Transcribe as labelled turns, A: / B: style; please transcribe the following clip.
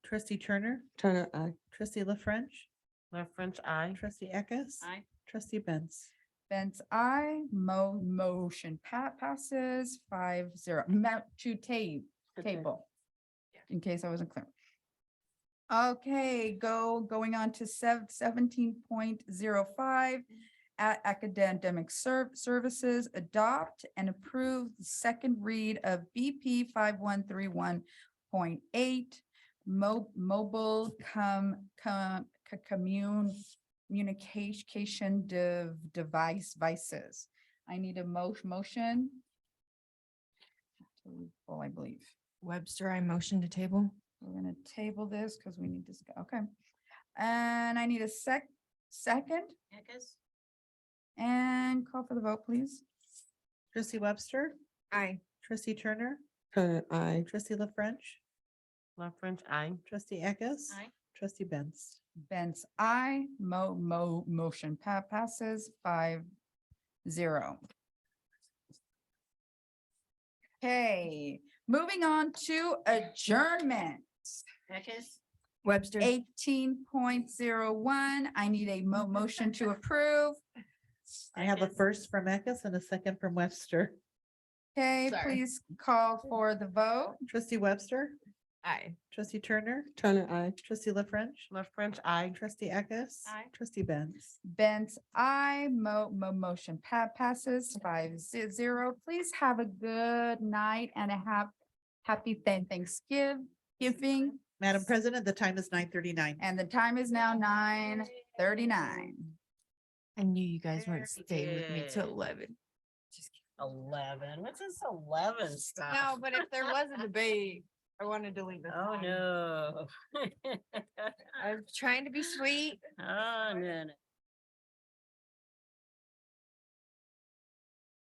A: Trustee Turner,
B: Turner, I.
A: trustee La French,
C: La French, I.
A: trustee Eckes.
D: Aye.
A: Trustee Benz.
E: Benz, I, mo- motion pat passes five zero, mount to tape, table. In case I wasn't clear. Okay, go, going on to sev- seventeen point zero five. At academic ser- services, adopt and approve the second read of BP five one three one point eight. Mo- mobile com, com, co- commune communication dev- device vices. I need a mo- motion. Well, I believe
F: Webster, I motion to table.
E: we're gonna table this because we need to, sc- okay. And I need a sec, second
D: Eckes?
E: and call for the vote, please.
A: Trustee Webster,
F: Aye.
A: trustee Turner,
B: Turner, I.
A: trustee La French,
C: La French, I.
A: trustee Eckes.
D: Aye.
A: Trustee Benz.
E: Benz, I, mo, mo, motion pa- passes five zero. Okay, moving on to adjournment.
D: Eckes?
F: Webster.
E: Eighteen point zero one, I need a mo- motion to approve.
A: I have a
D: Eckes?
A: first from Eckes and a second from Webster.
E: Okay,
F: Sorry.
E: please call for the vote.
A: Trustee Webster,
F: Aye.
A: trustee Turner,
B: Turner, I.
A: trustee La French,
C: La French, I.
A: trustee Eckes.
D: Aye.
A: Trustee Benz.
E: Benz, I, mo- mo- motion pa- passes five ze- zero. Please have a good night and a hap- happy thank- Thanksgiving.
A: Madam President, the time is nine thirty-nine.
E: And the time is now nine thirty-nine.
F: I knew you guys weren't
C: Very
F: staying with me till
C: good.
F: eleven. Just kidding.
C: Eleven, what's this eleven stuff?
F: No, but if there was a debate, I wanted to leave. it
D: Oh,
F: on.
D: no.
F: I'm trying to be sweet.
D: Oh, no, no.